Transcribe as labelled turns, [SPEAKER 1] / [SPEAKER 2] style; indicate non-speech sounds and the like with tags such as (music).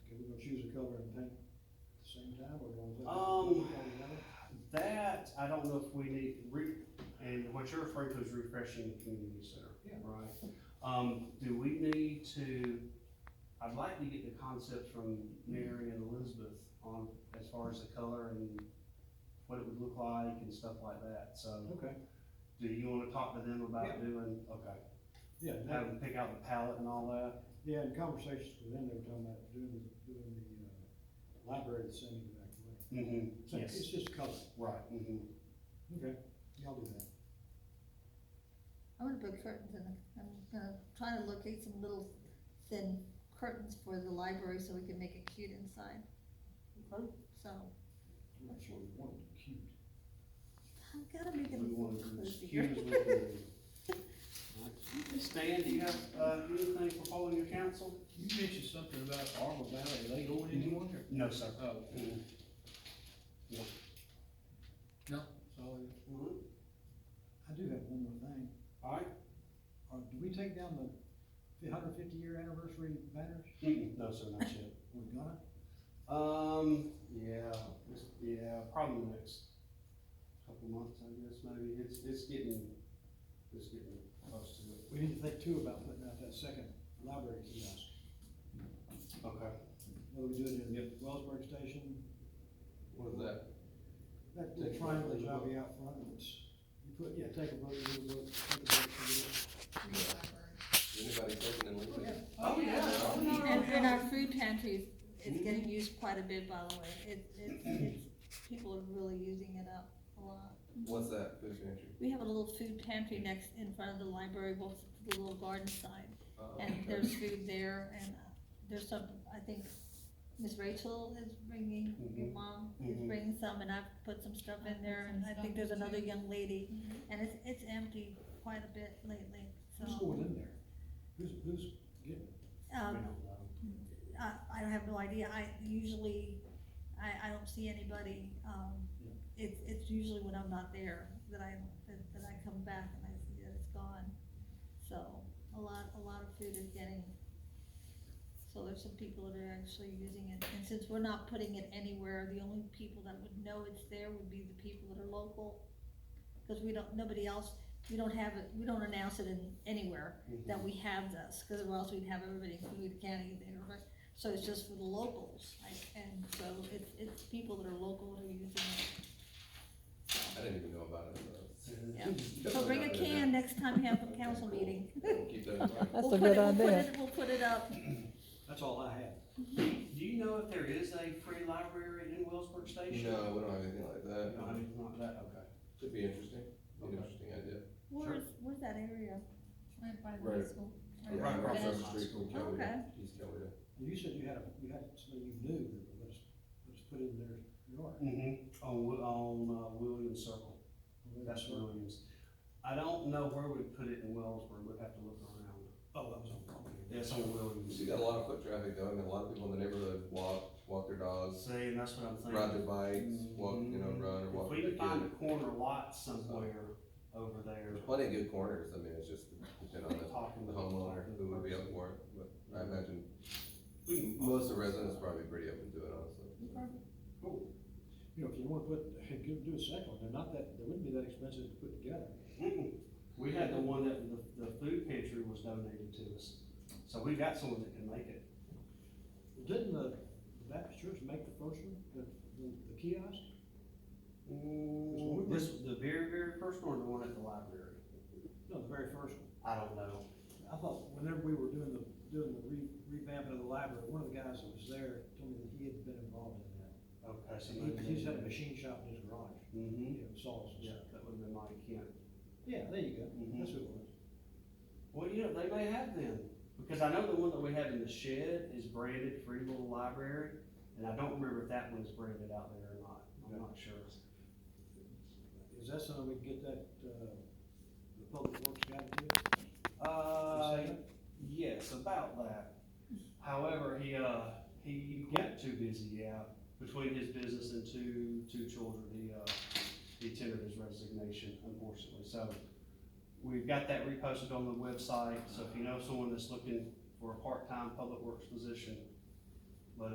[SPEAKER 1] everything at the same time, or one? of them?
[SPEAKER 2] Um, That, I don't know if we need, re, and what you're referring to is refreshing the community center.
[SPEAKER 1] Yeah.
[SPEAKER 2] Right. Um, do we need to, I'd like to get the concept from Mary and Elizabeth on, as far as the color and what it would look like and stuff like that, so,
[SPEAKER 1] Okay,
[SPEAKER 2] do you wanna talk to them
[SPEAKER 1] Yeah.
[SPEAKER 2] about doing, okay,
[SPEAKER 1] yeah, and
[SPEAKER 2] have
[SPEAKER 1] that,
[SPEAKER 2] them pick out the palette and all that?
[SPEAKER 1] yeah, in conversations with them, they were talking about doing, the- doing the, uh, library the same exact way.
[SPEAKER 2] Mm-hmm,
[SPEAKER 1] So it's just color,
[SPEAKER 2] Right, mm-hmm.
[SPEAKER 1] okay, y'all do that.
[SPEAKER 3] I'm gonna put curtains in, I'm gonna try to locate some little thin curtains for the library so we can make it cute inside, so,
[SPEAKER 1] I'm not sure we want it cute.
[SPEAKER 3] I've gotta make it a
[SPEAKER 2] We
[SPEAKER 3] little
[SPEAKER 2] want to
[SPEAKER 3] cozier.
[SPEAKER 2] excuse we can. Stan, do you have, uh, anything for following your counsel?
[SPEAKER 4] You mentioned something about Arbor Valley, they going
[SPEAKER 1] Mm-hmm.
[SPEAKER 4] anyone there?
[SPEAKER 2] No, sir.
[SPEAKER 4] Oh,
[SPEAKER 2] Mhm.
[SPEAKER 4] no, sorry.
[SPEAKER 2] Mhm.
[SPEAKER 1] I do have one more thing,
[SPEAKER 2] All right,
[SPEAKER 1] uh, do we take down the hundred fifty year anniversary banners?
[SPEAKER 2] Mm-mm. no, sir, not yet.
[SPEAKER 1] We're gonna,
[SPEAKER 2] Um, yeah, it's- yeah, probably the next couple months, I guess, maybe, it's, it's getting, it's getting close to it.
[SPEAKER 1] we need to think too about putting out that second library kiosk,
[SPEAKER 2] Okay.
[SPEAKER 1] whether we do it in Wellsburg Station,
[SPEAKER 4] What is that?
[SPEAKER 1] That
[SPEAKER 4] Take
[SPEAKER 1] the
[SPEAKER 4] a
[SPEAKER 1] triangle
[SPEAKER 4] little
[SPEAKER 1] job out front, and it's, you put, yeah, take a look, take a look, take a look.
[SPEAKER 4] Anybody taking and leaving?
[SPEAKER 2] Oh, yeah. Oh, no, no,
[SPEAKER 3] And, and
[SPEAKER 2] no.
[SPEAKER 3] our food pantry is getting used quite a bit, by the way, it, it, it's, people are really using it up a lot.
[SPEAKER 5] What's that food pantry?
[SPEAKER 3] We have a little food pantry next, in front of the library, both the little garden side,
[SPEAKER 5] Uh,
[SPEAKER 3] And there's food there, and uh, there's some, I think Miss Rachel is bringing, your
[SPEAKER 1] Mm-hmm.
[SPEAKER 2] Mhm.
[SPEAKER 3] mom is
[SPEAKER 2] Mhm.
[SPEAKER 3] bringing some, and I've put some stuff in there, and I think there's another young lady, and it's, it's empty quite a bit lately,
[SPEAKER 1] Who's
[SPEAKER 3] so.
[SPEAKER 1] going in there? Who's, who's getting,
[SPEAKER 2] We
[SPEAKER 3] Um,
[SPEAKER 2] don't know.
[SPEAKER 3] I, I have no idea, I usually, I, I don't see anybody, um,
[SPEAKER 1] Yeah.
[SPEAKER 3] it's, it's usually when I'm not there that I, that, that I come back and I see that it's gone. So, a lot, a lot of food is getting, so there's some people that are actually using it, and since we're not putting it anywhere, the only people that would know it's there would be the people that are local. Cause we don't, nobody else, we don't have it, we don't announce it in, anywhere that we have this, cause or else we'd have everybody in Coweta County there, but, so it's just for the locals, like, and so it's, it's people that are local that are using it.
[SPEAKER 5] I didn't even know about it. so-
[SPEAKER 2] Mhm.
[SPEAKER 3] So bring a can next time you have a council meeting.
[SPEAKER 5] We'll Keep that in mind.
[SPEAKER 3] We'll
[SPEAKER 6] That's a
[SPEAKER 3] put it-
[SPEAKER 6] good
[SPEAKER 3] we'll put
[SPEAKER 6] idea.
[SPEAKER 3] it- We'll put it up,
[SPEAKER 1] that's all I had.
[SPEAKER 2] Do you know if there is a free library in Wellsburg Station?
[SPEAKER 5] No, we don't have anything like
[SPEAKER 2] You don't have
[SPEAKER 5] that.
[SPEAKER 2] anything like that, okay.
[SPEAKER 5] Could be interesting, Be an
[SPEAKER 2] Okay.
[SPEAKER 5] interesting idea.
[SPEAKER 3] where's, where's that area?
[SPEAKER 7] Right by the
[SPEAKER 5] Right.
[SPEAKER 7] high school.
[SPEAKER 5] Yeah,
[SPEAKER 2] Right,
[SPEAKER 5] Across
[SPEAKER 7] right.
[SPEAKER 5] the street from Kelly,
[SPEAKER 3] Okay.
[SPEAKER 5] East Kelly.
[SPEAKER 1] You said you had, a you had somebody you knew, that would let's, let's put in their yard.
[SPEAKER 2] Mm-hmm, on, Wi- on, uh, Williams Circle. That's Williams. I don't know where we put it in Wellsburg, we'd have to look around.
[SPEAKER 1] Oh, that was on Broadway.
[SPEAKER 2] That's on Williams.
[SPEAKER 5] You got a lot of foot traffic though, I mean, a lot of people in the neighborhood walk, walk their dogs,
[SPEAKER 2] See, and that's what I'm thinking. Mm-hmm.
[SPEAKER 5] ride their bikes, walk, you know, run or
[SPEAKER 2] If
[SPEAKER 5] walk.
[SPEAKER 2] we
[SPEAKER 5] their
[SPEAKER 2] can find a
[SPEAKER 5] kid.
[SPEAKER 2] corner lot somewhere over there.
[SPEAKER 5] There's plenty of good corners, I mean, it's just, depending on the-
[SPEAKER 2] Talking
[SPEAKER 5] the
[SPEAKER 2] to
[SPEAKER 5] homeowner who would be up for it, but I imagine
[SPEAKER 2] We can-
[SPEAKER 5] most of the residents probably pretty open to it, honestly.
[SPEAKER 2] Cool.
[SPEAKER 1] You know, if you wanna put, (laughs) hey, give, do a second one, they're not that, they wouldn't be that expensive to put together.
[SPEAKER 2] Mm-mm. Mm-hmm. We had the one that the, the food pantry was donated to us, so we got someone that can make it.
[SPEAKER 1] Didn't the the Baptist church make the first one, the, the the kiosk?
[SPEAKER 2] Mm, This, the very, very first one, or the one at the library.
[SPEAKER 1] No, the very first one.
[SPEAKER 2] I don't know.
[SPEAKER 1] I thought whenever we were doing the, doing the re- revamping of the library, one of the guys that was there told me that he had been involved in that.
[SPEAKER 2] Okay, so
[SPEAKER 1] He,
[SPEAKER 2] maybe.
[SPEAKER 1] he's had a machine shop in his garage,
[SPEAKER 2] Mm-hmm.
[SPEAKER 1] you know, saws and
[SPEAKER 2] Yeah,
[SPEAKER 1] stuff.
[SPEAKER 2] that would have been Mike Kent.
[SPEAKER 1] Yeah, there you go,
[SPEAKER 2] Mhm.
[SPEAKER 1] that's who it was.
[SPEAKER 2] Well, you know, they may have them, because I know the one that we have in the shed is branded Free Little Library, and I don't remember if that one is branded out there or not, I'm not sure.
[SPEAKER 1] Is that something we can get that, uh, the public works guy to do?
[SPEAKER 2] Uh, yes, about that. However, he, uh, he got too busy, yeah, between his business and two, two children, he, uh, he tendered his resignation, unfortunately, so we've got that reposted on the website, so if you know someone that's looking for a part-time public works position,